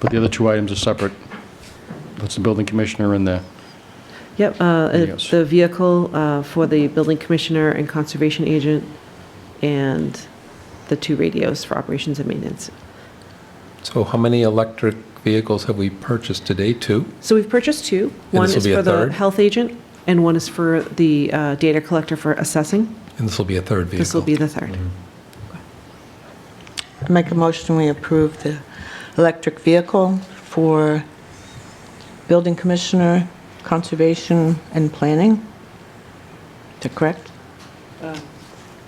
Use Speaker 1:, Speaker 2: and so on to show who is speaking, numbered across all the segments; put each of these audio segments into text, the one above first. Speaker 1: But the other two items are separate. That's the building commissioner and the,
Speaker 2: Yep, uh,
Speaker 1: Yes.
Speaker 2: the vehicle uh, for the building commissioner and conservation agent, and the two radios for operations and maintenance.
Speaker 3: So how many electric vehicles have we purchased to date? Two?
Speaker 2: So we've purchased two.
Speaker 3: And
Speaker 2: One
Speaker 3: this will
Speaker 2: is
Speaker 3: be a
Speaker 2: for the
Speaker 3: third?
Speaker 2: health agent, and one is for the uh, data collector for assessing.
Speaker 3: And this will be a third vehicle?
Speaker 2: This will be the third.
Speaker 4: I Make a motion, we approve the electric vehicle for building commissioner, conservation, and planning. Is that correct?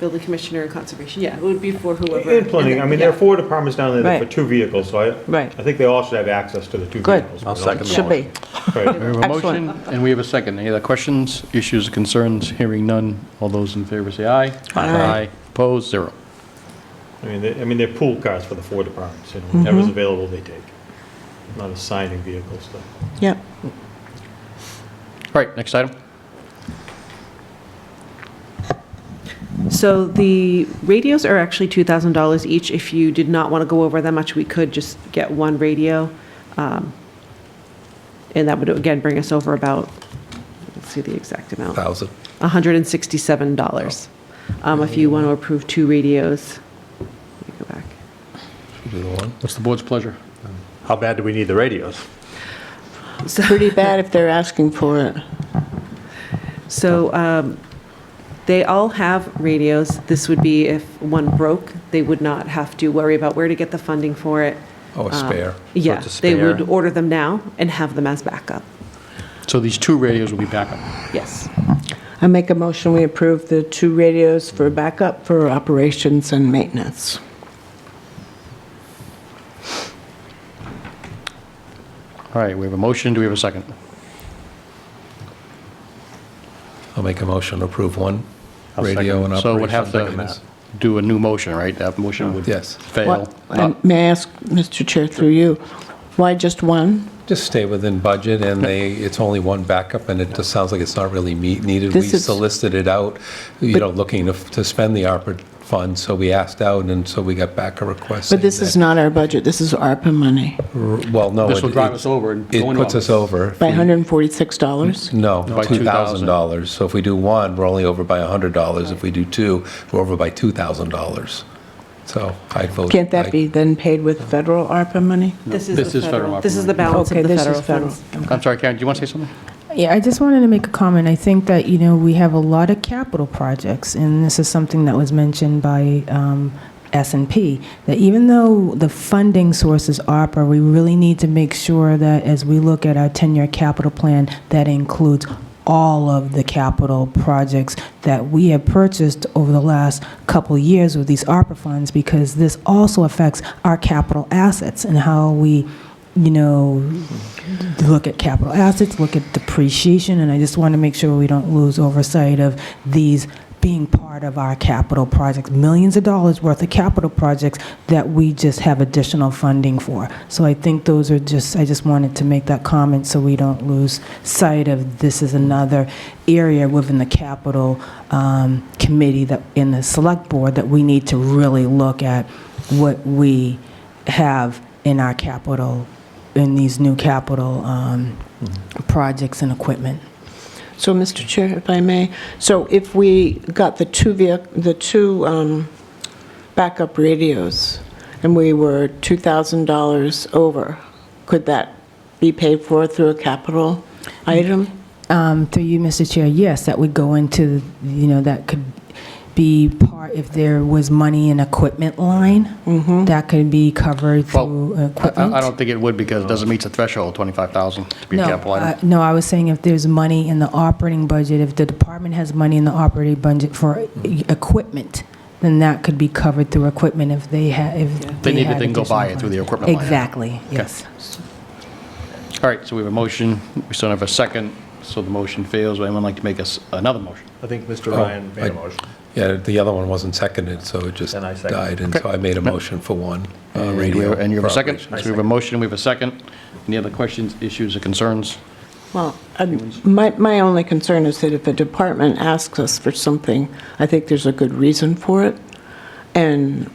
Speaker 2: Building commissioner and conservation, Uh, yeah, it would be for whoever.
Speaker 5: And planning, I mean, there are four departments down there for
Speaker 4: Right.
Speaker 5: two vehicles, so I,
Speaker 4: Right.
Speaker 5: I think they all should have access to the two
Speaker 4: Good.
Speaker 5: vehicles.
Speaker 3: I'll second
Speaker 4: Should be.
Speaker 1: we
Speaker 5: Right.
Speaker 1: have a motion
Speaker 4: Excellent.
Speaker 1: and we have a second. Any other questions, issues, concerns? Hearing none. All those in favor say aye.
Speaker 4: Aye.
Speaker 1: Opposed, zero.
Speaker 5: I mean, they- I mean, they're pool cars for the four departments, you know, whatever's
Speaker 4: Mm-hmm.
Speaker 5: available, they take. Not assigning vehicles, though.
Speaker 4: Yep.
Speaker 1: All right, next item.
Speaker 2: So the radios are actually $2,000 each. If you did not want to go over that much, we could just get one radio. um, And that would, again, bring us over about, let's see the exact amount,
Speaker 3: Thousand.
Speaker 2: $167. Um, If you want to approve two radios, let me go back.
Speaker 3: Should we do the one?
Speaker 1: What's the board's pleasure?
Speaker 6: How bad do we need the radios?
Speaker 4: Pretty bad if they're asking for it.
Speaker 2: So um, they all have radios. This would be if one broke, they would not have to worry about where to get the funding for it.
Speaker 4: Uh,
Speaker 3: Oh,
Speaker 2: Um,
Speaker 3: a spare.
Speaker 2: Yeah,
Speaker 6: it's a
Speaker 2: they would
Speaker 6: spare.
Speaker 2: order them now and have them as backup.
Speaker 1: So these two radios will be backup.
Speaker 2: Yes.
Speaker 4: I make a motion, we approve the two radios for backup for operations and maintenance.
Speaker 1: All right, we have a motion. Do we have a second?
Speaker 3: I'll make a motion to approve one
Speaker 6: I'll second
Speaker 3: radio and
Speaker 1: So we'd
Speaker 3: operations
Speaker 1: have to
Speaker 3: maintenance.
Speaker 1: do a new motion, right? That motion would
Speaker 3: Yes.
Speaker 1: fail. Uh,
Speaker 4: What- and May I ask, Mr. Chair, through you, why just one?
Speaker 3: Just stay within budget, and they, it's only one backup, and it just sounds like it's not really meet- needed. We
Speaker 4: This is-
Speaker 3: solicited it out, you know, looking to to spend the ARPA fund, so we asked out, and so we got back a request.
Speaker 4: But this
Speaker 3: saying
Speaker 4: is not our budget, this is ARPA money,
Speaker 3: that- Well, no.
Speaker 1: This
Speaker 3: it-
Speaker 1: will drive
Speaker 3: it-
Speaker 1: us over and go
Speaker 3: It
Speaker 1: into
Speaker 3: puts us
Speaker 1: office.
Speaker 3: over. if
Speaker 4: by
Speaker 3: we-
Speaker 4: $146?
Speaker 3: No,
Speaker 1: No, by
Speaker 3: $2,000. So if we do one, we're only over by $100. If we do two, we're over by $2,000. So I vote.
Speaker 4: Can't
Speaker 3: I-
Speaker 4: that be then paid with federal ARPA money?
Speaker 1: this
Speaker 2: This is the
Speaker 1: is federal
Speaker 2: federal, this is the
Speaker 1: operating
Speaker 2: balance
Speaker 4: Okay,
Speaker 2: of the
Speaker 4: this
Speaker 2: federal
Speaker 4: is federal.
Speaker 2: funds.
Speaker 1: I'm sorry, Karen, do you want to say something?
Speaker 7: Yeah, I just wanted to make a comment. I think that, you know, we have a lot of capital projects, and this is something that was mentioned by um, S&P, that even though the funding source is ARPA, we really need to make sure that as we look at our 10-year capital plan, that includes all of the capital projects that we have purchased over the last couple of years with these ARPA funds, because this also affects our capital assets and how we, you know, look at capital assets, look at depreciation, and I just want to make sure we don't lose oversight of these being part of our capital projects, millions of dollars worth of capital projects that we just have additional funding for. So I think those are just, I just wanted to make that comment so we don't lose sight of this is another area within the capital um, committee that, in the select board, that we need to really look at what we have in our capital in these new capital um, projects and equipment.
Speaker 4: So, Mr. Chair, if I may, so if we got the two vehi, the two um, backup radios, and we were $2,000 over, could that be paid for through a capital item?
Speaker 7: Um, Through you, Mr. Chair, yes, that would go into, you know, that could be part, if there was money in equipment line, that could be covered
Speaker 1: Mm-hmm. Well,
Speaker 7: through
Speaker 1: I- I I
Speaker 7: equipment.
Speaker 1: don't think it would because it doesn't meet the threshold, 25,000 to be a
Speaker 7: No,
Speaker 1: capital item.
Speaker 7: uh, no, I was saying if there's money in the operating budget, if the department has money in the operating budget for
Speaker 1: Mm-hmm.
Speaker 7: e- equipment, then that could be covered through equipment if they had, if
Speaker 1: They
Speaker 7: they
Speaker 1: need it,
Speaker 7: had
Speaker 1: they can go buy
Speaker 7: additional
Speaker 1: it through the
Speaker 7: funds.
Speaker 1: equipment line item.
Speaker 7: Exactly, yes.
Speaker 1: All right, so we have a motion, we still have a second, so the motion fails. Would anyone like to make us another motion?
Speaker 6: I think Mr. Ryan made
Speaker 3: Oh, I-
Speaker 6: a motion.
Speaker 3: Yeah, the other one wasn't seconded, so it just
Speaker 6: Then I second.
Speaker 3: died. And so I made a motion for one uh,
Speaker 1: And we-
Speaker 3: radio.
Speaker 1: And you have a
Speaker 3: for
Speaker 1: second? So
Speaker 3: operation.
Speaker 1: we have a motion, we have a second. Any other questions, issues, or concerns?
Speaker 4: Well, um, my, my only concern is that if a department asks us for something, I think there's a good reason for it, and